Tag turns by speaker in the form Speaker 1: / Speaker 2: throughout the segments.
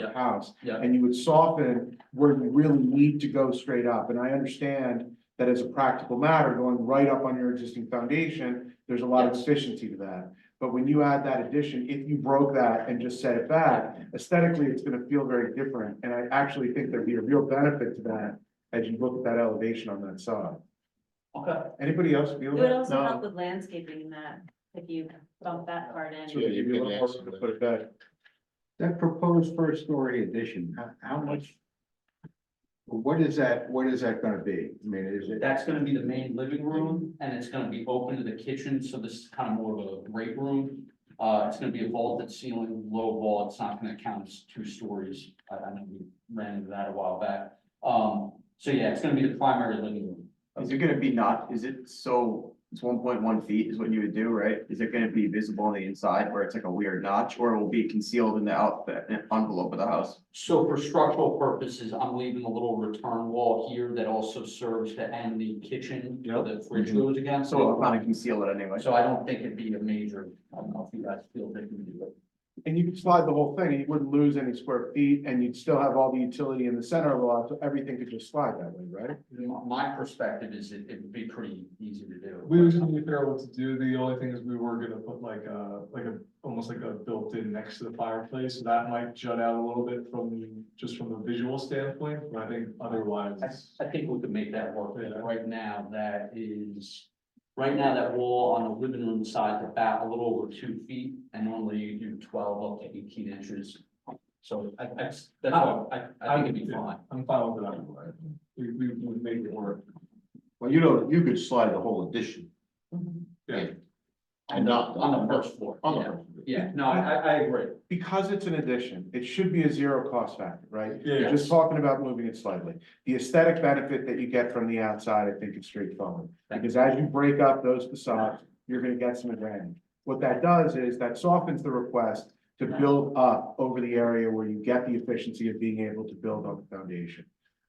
Speaker 1: Yeah.
Speaker 2: a house.
Speaker 1: Yeah.
Speaker 2: And you would soften where you really need to go straight up, and I understand that as a practical matter, going right up on your existing foundation, there's a lot of efficiency to that. But when you add that addition, if you broke that and just set it back, aesthetically, it's gonna feel very different, and I actually think there'd be a real benefit to that as you look at that elevation on that side.
Speaker 1: Okay.
Speaker 2: Anybody else feel
Speaker 3: It would
Speaker 2: that?
Speaker 3: also help
Speaker 2: No.
Speaker 3: with landscaping in that, if you bump that part
Speaker 2: So
Speaker 3: in.
Speaker 2: it'd be a little harder to put it back.
Speaker 4: That proposed first story addition, how, how much? What is that, what is that gonna be? I mean, is it,
Speaker 1: That's gonna be the main living room, and it's gonna be open to the kitchen, so this is kind of more of a great room. Uh, it's gonna be a vaulted ceiling, low wall, it's not gonna count as two stories, I, I know we ran into that a while back. Um, so yeah, it's gonna be the primary living room.
Speaker 5: Is it gonna be not, is it so, it's one point one feet is what you would do, right? Is it gonna be visible on the inside where it's like a weird notch, or it will be concealed in the out, the envelope of the house?
Speaker 1: So for structural purposes, I'm leaving a little return wall here that also serves to end the kitchen, where the fridge goes against.
Speaker 5: Mm-hmm. So I'm gonna conceal it anyway.
Speaker 1: So I don't think it'd be a major, I don't know if you guys feel they can do it.
Speaker 2: And you could slide the whole thing, and you wouldn't lose any square feet, and you'd still have all the utility in the center of the lot, so everything could just slide that way, right?
Speaker 1: My- My perspective is it, it would be pretty easy to do.
Speaker 6: We were trying to figure out what to do, the only thing is we were gonna put like a, like a, almost like a built-in next to the fireplace, so that might jut out a little bit from, just from a visual standpoint, but I think otherwise. it's-
Speaker 1: I, I think we could make that work,
Speaker 6: Yeah.
Speaker 1: right now, that is, right now, that wall on the living room side, the back a little over two feet, and normally you do twelve up to eighteen inches. So I, I, that's, all. I, I think it'd be
Speaker 6: Yeah,
Speaker 1: fine.
Speaker 6: I'm fine with that, we, we would make it work.
Speaker 4: well, you know, you could slide the whole addition
Speaker 1: On
Speaker 3: Mm-hmm.
Speaker 4: and
Speaker 1: the,
Speaker 4: not.
Speaker 1: on the first floor,
Speaker 4: On the
Speaker 1: yeah,
Speaker 4: first.
Speaker 1: yeah, no, I, I- I agree.
Speaker 2: Because it's an addition, it should be a zero cost factor, right? You're
Speaker 6: Yeah,
Speaker 2: just talking about moving it slightly. The aesthetic benefit that you get from the outside, I think is straightforward. Because as you break up those facades, you're gonna get some advantage. What that does is that softens the request to build up over the area where you get the efficiency of being able to build on the foundation.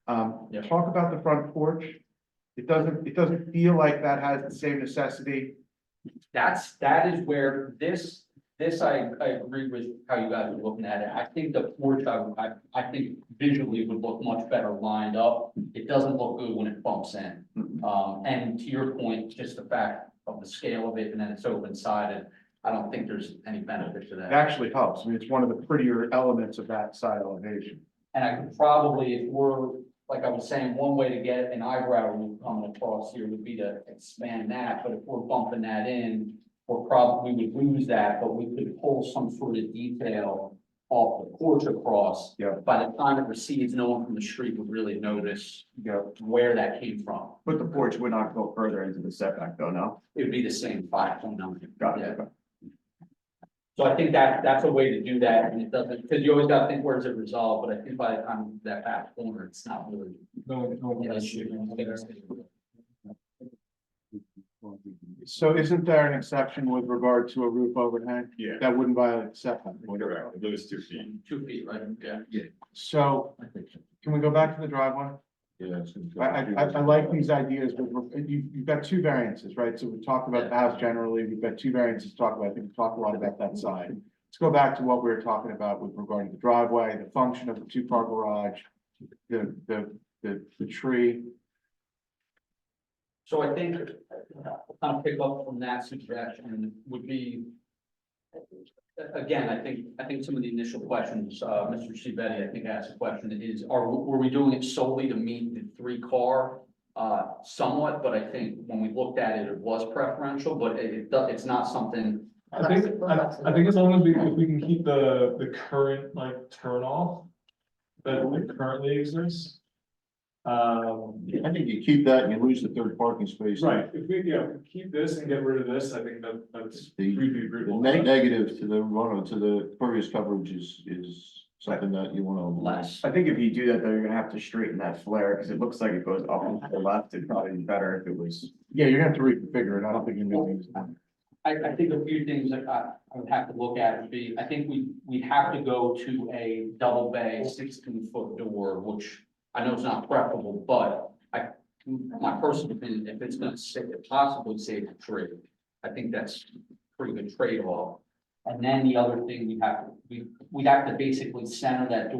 Speaker 2: Um,
Speaker 1: Yeah.
Speaker 2: talk about the front porch. It doesn't, it doesn't feel like that has the same necessity.
Speaker 1: That's, that is where this, this, I, I agree with how you guys are looking at it. I think the porch, I, I, I think visually would look much better lined up. It doesn't look good when it bumps in.
Speaker 5: Mhm.
Speaker 1: Um, and to your point, just the fact of the scale of it and then it's open sided, I don't think there's any benefit to
Speaker 2: It
Speaker 1: that.
Speaker 2: actually helps. I mean, it's one of the prettier elements of that side elevation.
Speaker 1: And I could probably, if we're, like I was saying, one way to get an eyebrow roof coming across here would be to expand that, but if we're bumping that in. We're probably, we would lose that, but we could pull some sort of detail off the porch across.
Speaker 2: Yeah.
Speaker 1: By the time it recedes, no one from the street would really notice
Speaker 2: You know,
Speaker 1: where that came from.
Speaker 5: But the porch would not go further into the setback though, no?
Speaker 1: It would be the same five point nine.
Speaker 5: Got
Speaker 1: Yeah.
Speaker 5: it.
Speaker 1: So I think that, that's a way to do that, and it doesn't, because you always gotta think, where's it resolved, but I think by the time that back corner, it's not really.
Speaker 6: no, no.
Speaker 1: an issue.
Speaker 2: So isn't there an exception with regard to a roof overhang?
Speaker 7: Yeah.
Speaker 2: That wouldn't violate setback.
Speaker 7: Correct, it was two feet.
Speaker 1: Two feet, right, yeah.
Speaker 2: So
Speaker 1: I think so.
Speaker 2: can we go back to the driveway?
Speaker 7: Yeah.
Speaker 2: I, I, I- I like these ideas, but we're- you, you've got two variances, right? So we talked about the house generally, we've got two variances to talk about. I think we talked a lot about that side. Let's go back to what we were talking about with regard to the driveway, the function of the two-car garage, the, the, the, the tree.
Speaker 1: So I think, kind of pick up from that suggestion would be. Again, I think, I think some of the initial questions, uh, Mr. Shivetti, I think asked a question is, are, were we doing it solely to meet the three car? Uh, somewhat, but I think when we looked at it, it was preferential, but it, it, do- it's not something,
Speaker 6: I think, I, I think as long as we, if we can keep the, the current like turn off that currently exists. Um,
Speaker 4: I think you keep that and you lose the third parking space.
Speaker 6: Right, if we, yeah, if we keep this and get rid of this, I think that, that's.
Speaker 4: The-
Speaker 6: we'd be
Speaker 4: The
Speaker 6: agreeable.
Speaker 4: neg- negative to the run, to the previous coverage is, is something that you wanna. avoid.
Speaker 1: less.
Speaker 5: I think if you do that, though, you're gonna have to straighten that flare, because it looks like it goes up and to the left, it'd probably be better if it was.
Speaker 2: Yeah, you're gonna have to reconfigure it. I don't think you're gonna use it.
Speaker 1: I, I think a few things that I, I would have to look at would be, I think we, we have to go to a double bay sixteen foot door, which I know is not preferable, but I, my personal opinion, if it's gonna save, possibly save the tree, I think that's pretty good trade off. And then the other thing we have, we, we'd have to basically center that door